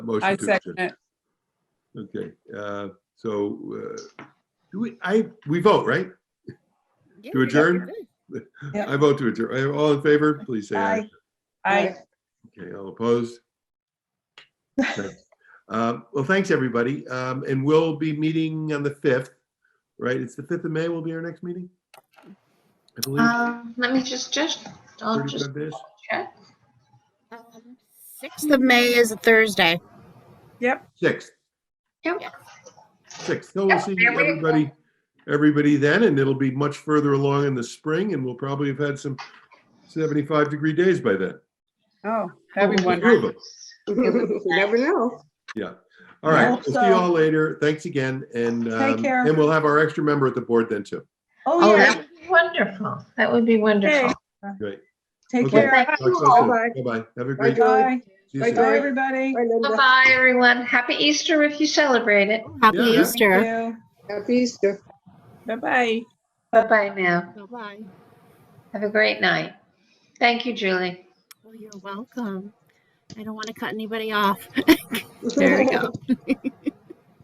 Motion I to second adjourn. it. Okay, uh, so, uh, do we, I, we vote, right? Yeah, To we adjourn? did. Yep. I vote to adjourn. All in favor, please say aye. I, Okay, all opposed? Okay. Um, Well, thanks, everybody. Um, And we'll be meeting on the 5th, right? It's the 5th of May will be our next meeting? I believe, Um, let me just, just, I'll just 35 days. check. Um, Sixth of May is a Thursday. 6th, Yep. 6th. So we'll Yeah, see there we go. everybody, everybody then, and it'll be much further along in the spring, and we'll probably have had some 75-degree days by then. oh, that'd be The wonderful. three of us. You never know. Yeah. All right. Yeah. We'll see you all later. Thanks again. And, um, care. and we'll have our extra member at the board then too. Oh, Oh, yeah. that would be wonderful. That would be wonderful. Great. Take Okay. care. Thank Talk you to all. you soon. Bye-bye. Have a great. Bye, Julie. Bye, see you Bye, soon. bye, everybody. Bye, Linda. Bye-bye, everyone. Happy Easter if you celebrate it. Happy Yeah, yeah. Easter. Happy Easter. Bye-bye. Bye-bye now. Bye-bye. Have a great night. Thank you, Julie. Well, you're welcome. I don't want to cut anybody off. There we go.